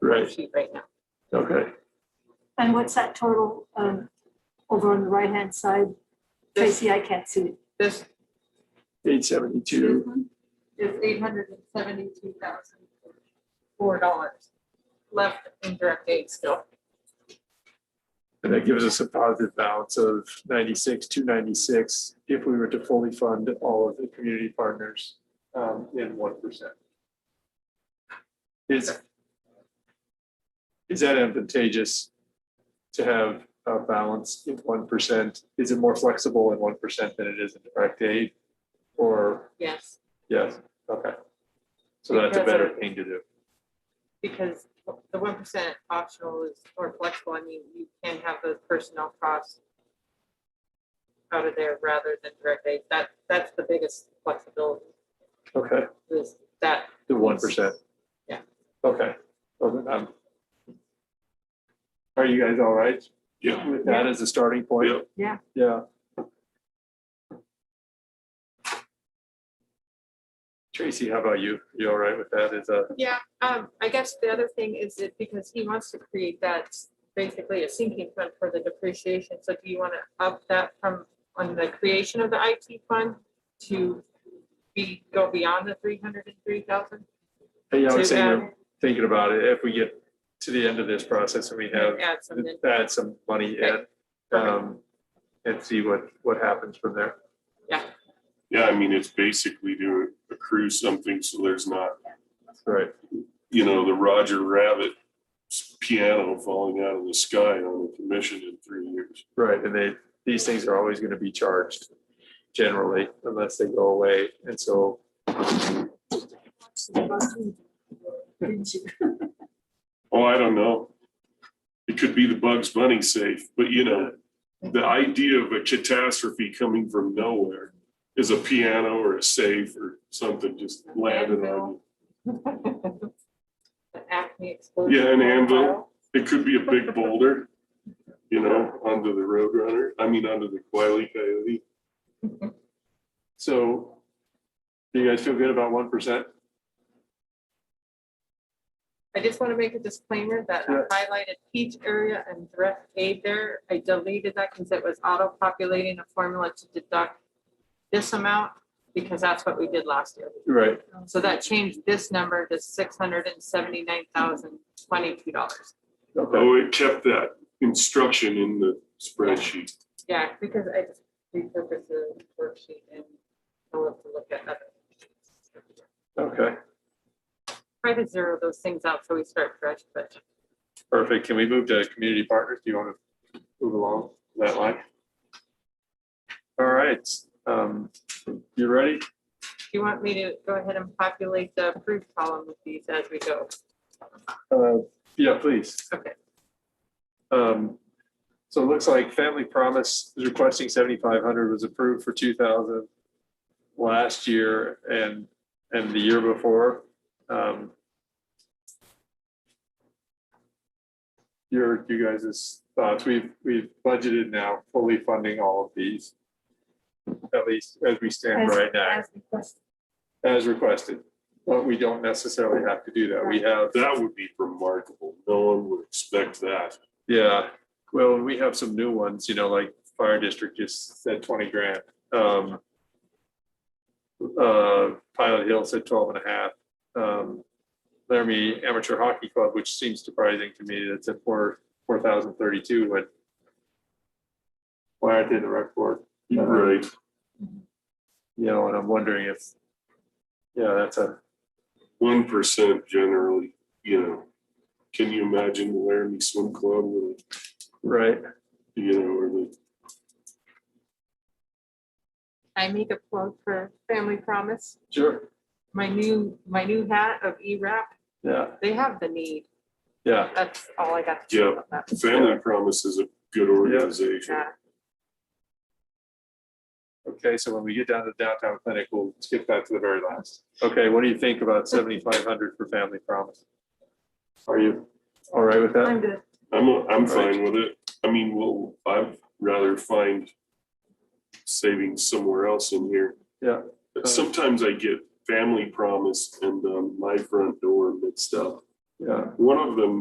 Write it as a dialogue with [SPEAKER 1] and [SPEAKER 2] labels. [SPEAKER 1] Right,
[SPEAKER 2] sheet right now.
[SPEAKER 1] okay.
[SPEAKER 3] And what's that total um, over on the right-hand side?
[SPEAKER 2] This,
[SPEAKER 3] Tracy, I can't see it.
[SPEAKER 2] this,
[SPEAKER 1] Eight seventy-two,
[SPEAKER 2] this one is eight hundred and seventy-two thousand four dollars left in direct aid still.
[SPEAKER 1] and that gives us a positive balance of ninety-six, two ninety-six, if we were to fully fund all of the community partners um, in one percent. Is, is that advantageous to have a balance in one percent? Is it more flexible in one percent than it is in direct aid? Or,
[SPEAKER 2] Yes.
[SPEAKER 1] yes, okay. So that's a better thing to do.
[SPEAKER 2] because the one percent optional is, or flexible, I mean, you can have those personnel costs out of there rather than direct aid. That, that's the biggest flexibility
[SPEAKER 1] Okay,
[SPEAKER 2] is that.
[SPEAKER 1] the one percent.
[SPEAKER 2] Yeah.
[SPEAKER 1] Okay. Well, then I'm- Are you guys all right? Yeah. With that as a starting point?
[SPEAKER 3] Yeah.
[SPEAKER 1] Yeah. Tracy, how about you? You all right with that uh, as a,
[SPEAKER 2] Yeah, um, I guess the other thing is that because he wants to create that basically a sinking fund for the depreciation, so do you want to up that from on the creation of the IT fund to be, go beyond the three hundred and three thousand?
[SPEAKER 1] hey, I was saying, I'm thinking about it, if we get to the end of this process and we have,
[SPEAKER 2] Add something.
[SPEAKER 1] add some money in, um, and see what, what happens from there.
[SPEAKER 4] Yeah, I mean, it's basically to accrue something so there's not,
[SPEAKER 1] Right.
[SPEAKER 4] you know, the Roger Rabbit piano falling out of the sky on the commission in three years.
[SPEAKER 1] Right, and they, these things are always gonna be charged generally unless they go away. And so,
[SPEAKER 3] Didn't you?
[SPEAKER 4] Oh, I don't know. It could be the Bugs Bunny safe, but you know, the idea of a catastrophe coming from nowhere is a piano or a safe or something just landed on
[SPEAKER 2] An Acme explosion.
[SPEAKER 4] you. Yeah, an anvil. It could be a big boulder, you know, onto the Roadrunner, I mean, onto the Wile E. Coyote.
[SPEAKER 1] so do you guys feel good about one percent?
[SPEAKER 2] I just want to make a disclaimer that I
[SPEAKER 1] Yeah.
[SPEAKER 2] highlighted each area and direct aid there. I deleted that because it was auto-populating a formula to deduct this amount because that's what we did last year.
[SPEAKER 1] Right,
[SPEAKER 2] So that changed this number to six hundred and seventy-nine thousand twenty-two dollars.
[SPEAKER 1] okay,
[SPEAKER 4] Oh, it kept that instruction in the spreadsheet.
[SPEAKER 2] Yeah, because I just repurposed the worksheet and I'll have to look at that.
[SPEAKER 1] okay,
[SPEAKER 2] Try to zero those things out so we start fresh, but
[SPEAKER 1] perfect. Can we move to community partners? Do you wanna move along that line? All right, um, you ready?
[SPEAKER 2] Do you want me to go ahead and populate the approved column with these as we go?
[SPEAKER 1] Uh, yeah, please.
[SPEAKER 2] Okay.
[SPEAKER 1] Um, so it looks like Family Promise is requesting seventy-five hundred was approved for two thousand last year and, and the year before. Um, Your, you guys' thoughts, we've, we've budgeted now fully funding all of these. At least as we stand
[SPEAKER 3] As-
[SPEAKER 1] right now,
[SPEAKER 3] as requested.
[SPEAKER 1] as requested, but we don't necessarily have to do that. We have.
[SPEAKER 4] That would be remarkable. No one would expect that.
[SPEAKER 1] Yeah, well, and we have some new ones, you know, like fire district just said twenty grand. Um. Uh, Pilot Hill said twelve and a half. Um, Laramie Amateur Hockey Club, which seems surprising to me, that's at four, four thousand thirty-two, but. Why aren't they in the rec board? Uh,
[SPEAKER 4] You're Right.
[SPEAKER 1] You know, and I'm wondering if. Yeah, that's a,
[SPEAKER 4] One percent generally, you know. Can you imagine the Laramie Swim Club, with,
[SPEAKER 1] right,
[SPEAKER 4] you know, or the,
[SPEAKER 2] I make a plug for Family Promise,
[SPEAKER 1] sure,
[SPEAKER 2] my new, my new hat of E-Rap.
[SPEAKER 1] yeah,
[SPEAKER 2] They have the need.
[SPEAKER 1] yeah,
[SPEAKER 2] That's all I got to say
[SPEAKER 4] Yeah.
[SPEAKER 2] about that.
[SPEAKER 4] Family Promise is a good organization.
[SPEAKER 2] Yeah.
[SPEAKER 1] okay, so when we get down to downtown clinic, we'll skip that to the very last. Okay, what do you think about seventy-five hundred for Family Promise? Are you all right with that?
[SPEAKER 2] I'm good.
[SPEAKER 4] I'm, I'm
[SPEAKER 1] Right.
[SPEAKER 4] fine with it. I mean, well, I'd rather find savings somewhere else in here.
[SPEAKER 1] Yeah.
[SPEAKER 4] But Sometimes I get Family Promise and um, my front door mixed up.
[SPEAKER 1] Yeah.
[SPEAKER 4] One of them